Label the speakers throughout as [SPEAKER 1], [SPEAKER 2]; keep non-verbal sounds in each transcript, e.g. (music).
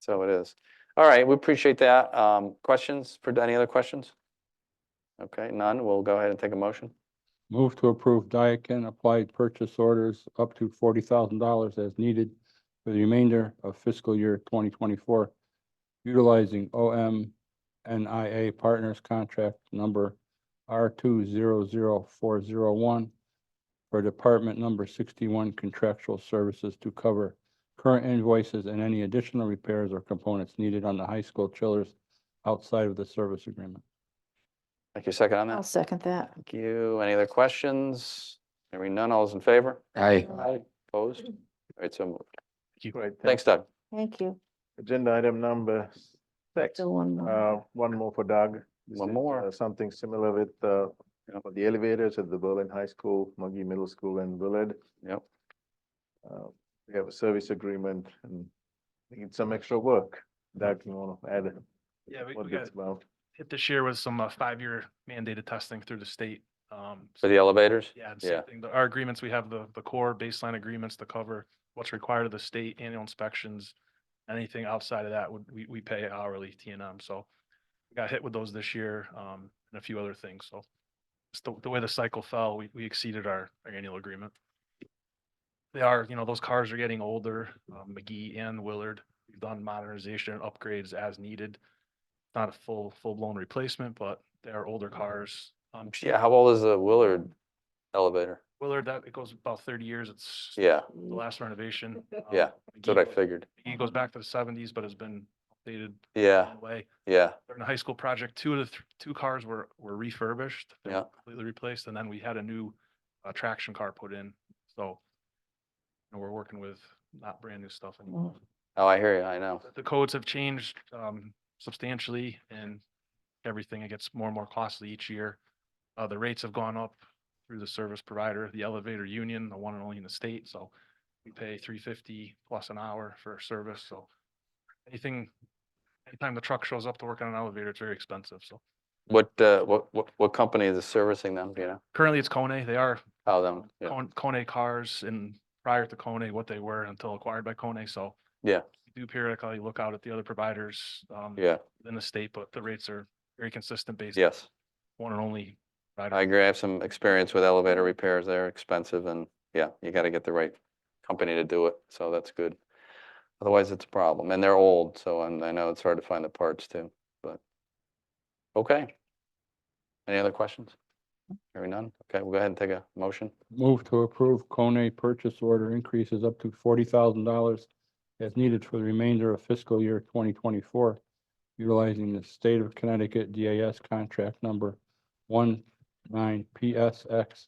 [SPEAKER 1] so it is. All right, we appreciate that. Um, questions, for any other questions? Okay, none, we'll go ahead and take a motion.
[SPEAKER 2] Move to approve Daikin applied purchase orders up to forty thousand dollars as needed for the remainder of fiscal year twenty twenty-four, utilizing O M N I A Partners Contract Number R two zero zero four zero one for Department Number sixty-one contractual services to cover current invoices and any additional repairs or components needed on the high school chillers outside of the service agreement.
[SPEAKER 1] Thank you, second on
[SPEAKER 3] I'll
[SPEAKER 1] that.
[SPEAKER 3] second that.
[SPEAKER 1] Thank you. Any other questions? Hearing none, all those in favor?
[SPEAKER 4] Aye.
[SPEAKER 1] Aye. Opposed? All right, so moved.
[SPEAKER 5] Right,
[SPEAKER 1] Thanks, Doug.
[SPEAKER 3] Thank you.
[SPEAKER 5] Agenda item number six,
[SPEAKER 3] Still one more.
[SPEAKER 5] uh, one more for Doug. This
[SPEAKER 1] One
[SPEAKER 5] is,
[SPEAKER 1] more.
[SPEAKER 5] uh, Something similar with, uh,
[SPEAKER 1] Yep.
[SPEAKER 5] for the elevators at the Berlin High School, Muggy Middle School and Willard.
[SPEAKER 1] Yep.
[SPEAKER 5] Uh, We have a service agreement and we need some extra work. Doug, you wanna add
[SPEAKER 6] Yeah, we,
[SPEAKER 5] what
[SPEAKER 6] we got
[SPEAKER 5] it's about?
[SPEAKER 6] hit this year with some uh, five-year mandated testing through the state. Um,
[SPEAKER 1] For
[SPEAKER 6] so-
[SPEAKER 1] the elevators?
[SPEAKER 6] yeah, and
[SPEAKER 1] yeah.
[SPEAKER 6] same thing. The- Our agreements, we have the, the core baseline agreements to cover what's required of the state annual inspections. Anything outside of that would, we, we pay hourly T and M. So we got hit with those this year, um, and a few other things. So it's the, the way the cycle fell, we, we exceeded our, our annual agreement. They are, you know, those cars are getting older, um, McGee and Willard. We've done modernization and upgrades as needed. Not a full, full-blown replacement, but they are older cars. Um,
[SPEAKER 1] Yeah, how old is the Willard elevator?
[SPEAKER 6] Willard, that, it goes about thirty years. It's
[SPEAKER 1] Yeah,
[SPEAKER 6] the last renovation.
[SPEAKER 1] Yeah,
[SPEAKER 6] Um,
[SPEAKER 1] that's what I
[SPEAKER 6] McGee-
[SPEAKER 1] figured.
[SPEAKER 6] McGee goes back to the seventies, but has been updated
[SPEAKER 1] Yeah,
[SPEAKER 6] in a way.
[SPEAKER 1] yeah,
[SPEAKER 6] During the high school project, two of the, th- two cars were, were refurbished. they were
[SPEAKER 1] Yeah.
[SPEAKER 6] Completely replaced, and then we had a new uh, traction car put in, so. you know, we're working with not brand new stuff anymore.
[SPEAKER 1] oh, I hear you, I know.
[SPEAKER 6] The codes have changed um, substantially and everything, it gets more and more costly each year. Uh, the rates have gone up through the service provider, the elevator union, the one and only in the state, so we pay three fifty plus an hour for service, so anything, anytime the truck shows up to work on an elevator, it's very expensive, so
[SPEAKER 1] What, uh, what, what, what company is servicing them, do you know?
[SPEAKER 6] currently it's Kone, they are
[SPEAKER 1] How them, yeah,
[SPEAKER 6] Kon- Kone cars and prior to Kone, what they were until acquired by Kone, so.
[SPEAKER 1] Yeah.
[SPEAKER 6] we Do periodically look out at the other providers, um,
[SPEAKER 1] yeah,
[SPEAKER 6] in the state, but the rates are very consistent based. on
[SPEAKER 1] yes.
[SPEAKER 6] One and only. provider.
[SPEAKER 1] I agree. I have some experience with elevator repairs. They're expensive and yeah, you gotta get the right company to do it. So that's good. Otherwise, it's a problem. And they're old, so and I know it's hard to find the parts too, but. Okay. Any other questions? Hearing none? Okay, we'll go ahead and take a motion.
[SPEAKER 2] Move to approve Kone purchase order increases up to forty thousand dollars as needed for the remainder of fiscal year twenty twenty-four, utilizing the state of Connecticut DAS contract number one nine PSX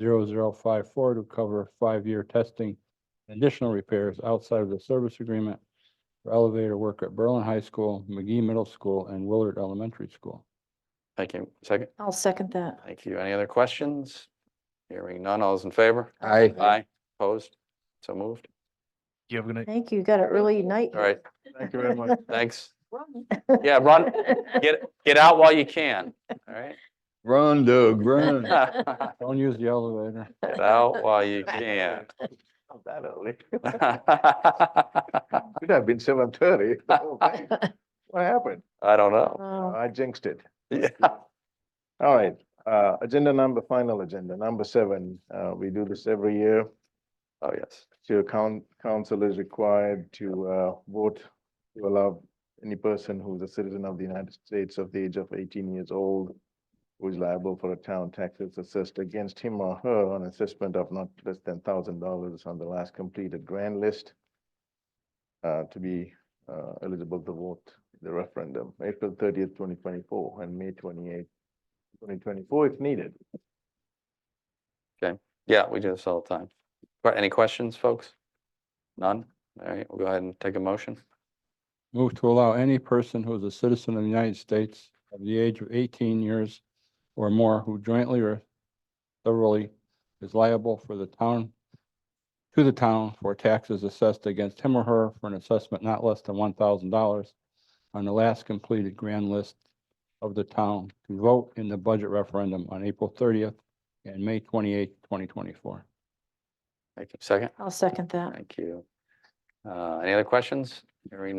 [SPEAKER 2] 54 to cover five-year testing, and additional repairs outside of the service agreement for elevator work at Berlin High School, McGee Middle School, and Willard Elementary School.
[SPEAKER 1] Thank you. Second?
[SPEAKER 3] I'll second that.
[SPEAKER 1] Thank you. Any other questions? Hearing none. All those in favor?
[SPEAKER 4] Aye.
[SPEAKER 1] Aye. Opposed? So moved.
[SPEAKER 6] You have a good night.
[SPEAKER 3] Thank you. You Got an early night.
[SPEAKER 1] All
[SPEAKER 3] (laughs)
[SPEAKER 1] right,
[SPEAKER 5] Thank you very much.
[SPEAKER 1] thanks. Yeah, run, get, get out while you can, all right?
[SPEAKER 4] Run, Doug, run.
[SPEAKER 1] (laughs) Get
[SPEAKER 2] Don't use the elevator.
[SPEAKER 1] out while you can.
[SPEAKER 5] Not that early. (laughs)
[SPEAKER 1] (laughs) I
[SPEAKER 5] Could have been seven thirty. What happened?
[SPEAKER 1] don't
[SPEAKER 3] (laughs)
[SPEAKER 1] know.
[SPEAKER 3] Oh,
[SPEAKER 5] I jinxed it.
[SPEAKER 1] Yeah.
[SPEAKER 5] All right, uh, agenda number, final agenda, number seven, uh, we do this every year.
[SPEAKER 1] Oh, yes.
[SPEAKER 5] So coun- council is required to, uh, vote to allow any person who's a citizen of the United States of the age of eighteen years old who is liable for a town taxes assessed against him or her on assessment of not less than thousand dollars on the last completed grand list uh, to be, uh, eligible to vote in the referendum, April thirtieth, twenty twenty-four, and May twenty-eighth, twenty twenty-four, if needed.
[SPEAKER 1] Yeah, we do this all the time. Right, Any questions, folks? None? All right, we'll go ahead and take a motion.
[SPEAKER 2] Move to allow any person who is a citizen of the United States of the age of eighteen years or more who jointly or thoroughly is liable for the town, to the town for taxes assessed against him or her for an assessment not less than one thousand dollars on the last completed grand list of the town to vote in the budget referendum on April thirtieth and May twenty-eighth, twenty twenty-four.
[SPEAKER 1] Thank you. Second?
[SPEAKER 3] I'll second that.
[SPEAKER 1] Thank you. Uh, any other questions? Hearing